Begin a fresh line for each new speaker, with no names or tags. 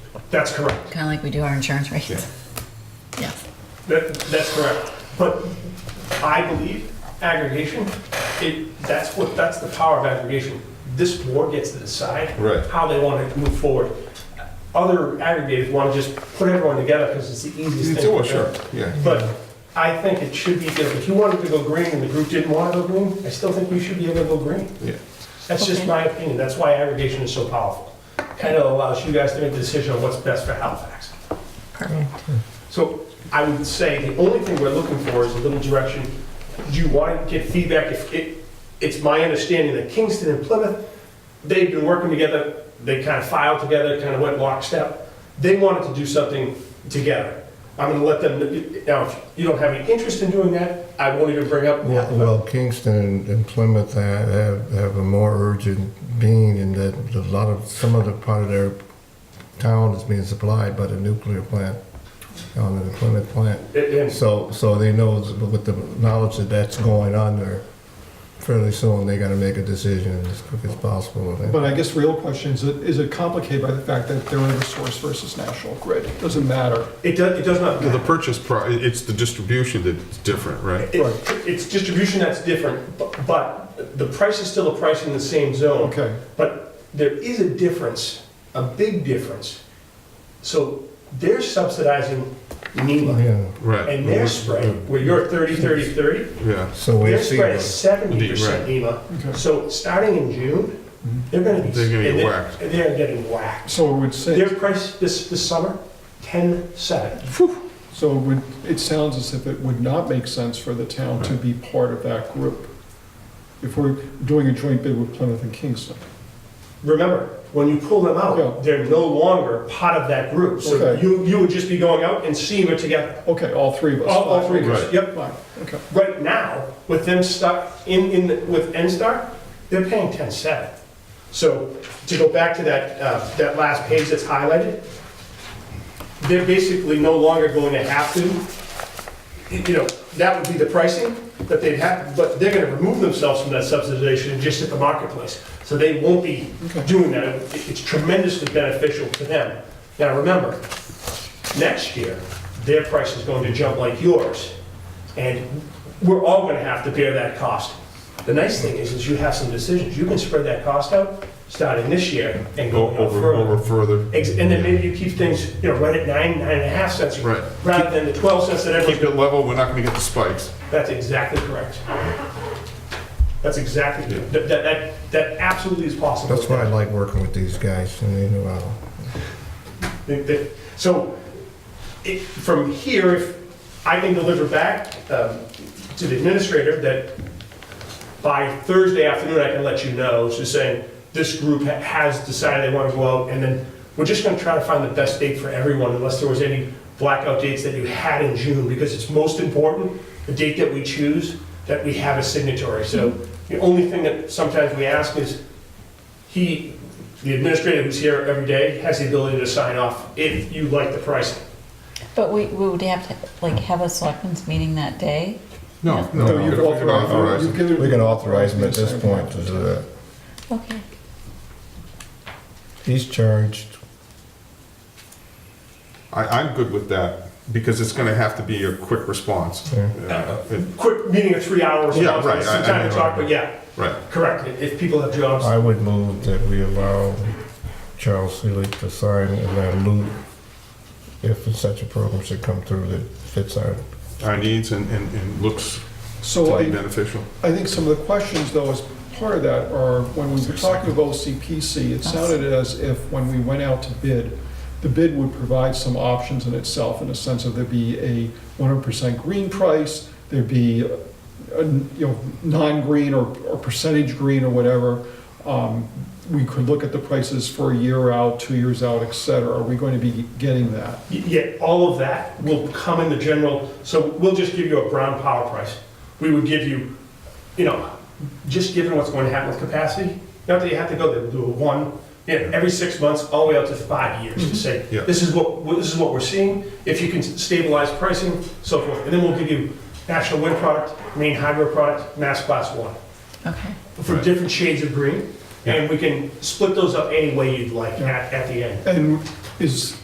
That's correct.
Kind of like we do our insurance rates.
Yeah.
Yeah.
That, that's correct. But I believe aggregation, it, that's what, that's the power of aggregation. This board gets to decide
Right.
how they want to move forward. Other aggregators want to just put everyone together because it's the easiest
It's,
thing.
oh,
to do.
sure, yeah.
But I think it should be, different. if you wanted to go green and the group didn't want to go green, I still think we should be able to go green.
Yeah.
That's just
Okay.
my opinion. That's why aggregation is so powerful. Kind of allows you guys to make the decision on what's best for Halifax.
Perfect.
So I would say the only thing we're looking for is a little direction. Do you want to get feedback? If it, it's my understanding that Kingston and Plymouth, they've been working together, they kind of filed together, kind of went lockstep. They wanted to do something together. I'm gonna let them, now, if you don't have any interest in doing that, I won't even bring up.
Well, well, Kingston and Plymouth ha- have, have a more urgent being in that a lot of, some of the part of their town is being supplied by the nuclear plant, um, the Plymouth plant.
And- and
So, so they know, that with the knowledge that that's going on there, fairly soon, they gotta make a decision as quick as possible.
But I guess real question is, is it complicated by the fact that they're in resource versus national grid? Doesn't matter.
It does, it does not.
The purchase pri, it's the distribution that's different, right?
It- It's distribution that's different, bu- but the price is still a price in the same zone.
Okay,
But there is a difference, a big difference. So they're subsidizing NEMA
Yeah,
Right.
and their spread, where you're 30, 30, 30,
Yeah,
so we
their
see.
spread is
those.
70%
Right.
NEMA.
okay.
So starting in June, they're gonna be.
They're gonna get
they're-
whacked.
They're getting whacked.
So it would say,
Their price this, this summer, 10.7.
so it would, it sounds as if it would not make sense for the town to be part of that group if we're doing a joint bid with Plymouth and Kingston.
Remember, when you pull them
Yeah.
out, they're no longer part of that group. So
Okay.
you, you would just be going out and seeing it together.
Okay, all three of us.
All, all three of us,
Right.
yep.
Fine, okay.
Right now, with them stuck in, in, the- with NSTAR, they're paying ten seven. So to go back to that, uh, that last page that's highlighted, they're basically no longer going to have to, you know, that would be the pricing that they'd have, but they're gonna remove themselves from that subsidization just at the marketplace. So they won't be doing that. It- It's tremendously beneficial to them. Now, remember, next year, their price is going to jump like yours. And we're all gonna have to bear that cost. The nice thing is, is you have some decisions. You can spread that cost out, starting this year and
go
going out
over, over
further.
further.
Ex- And then maybe you keep things, you know, right at nine, nine and a half cents.
Right.
Rather than the 12 cents that
Keep
everyone's,
it level, we're not gonna get the spikes.
that's exactly correct. That's exactly,
Yeah.
that, that- that, that absolutely is possible.
That's why I like working with these guys, and they know how.
They- they- So, it, from here, if I can deliver back um, to the administrator that by Thursday afternoon, I can let you know, so saying, this group ha- has decided they want to go out, and then we're just gonna try to find the best date for everyone, unless there was any blackout dates that you had in June, because it's most important, the date that we choose, that we have a signatory. So the only thing that sometimes we ask is, he, the administrator who's here every day, has the ability to sign off if you like the pricing.
But we, we would have to, like, have a selectmen's meeting that day?
No, no,
No,
no.
you've
we can
authorized-
authorize
you've
it.
given-
We can authorize them at this point to do that.
Okay.
He's charged
I, I'm good with that, because it's gonna have to be a quick response.
Yeah.
Yeah, it-
Quick meeting of three hours,
Yeah,
some
right, I- I
time
mean,
to talk, but yeah,
Right,
correct, if if people have jobs.
I would move that we allow Charles Seelig to sign and then Lou, if such a program should come through that fits our,
our needs and, and, and looks
So
to
I,
be beneficial.
I think some of the questions, though, as part of that are, when we were talking about OCPC, it sounded as if when we went out to bid, the bid would provide some options in itself, in the sense of there'd be a 100% green price, there'd be, uh, you know, non-green or or percentage green or whatever. Um, We could look at the prices for a year out, two years out, et cetera. Are we going to be getting that?
Yet all of that will come in the general, so we'll just give you a brown power price. We would give you, you know, just given what's going to happen with capacity, not that you have to go there, we'll do a one, yeah, every six months, all the way up to five years to say,
Mm-hmm. Yeah.
this is what, well, this is what we're seeing, if you can stabilize pricing, so forth. And then we'll give you national wind product, main hydro product, mass class one,
Okay.
for
Right.
different shades of green. And we can split those up any way you'd like at, at the end.
And is,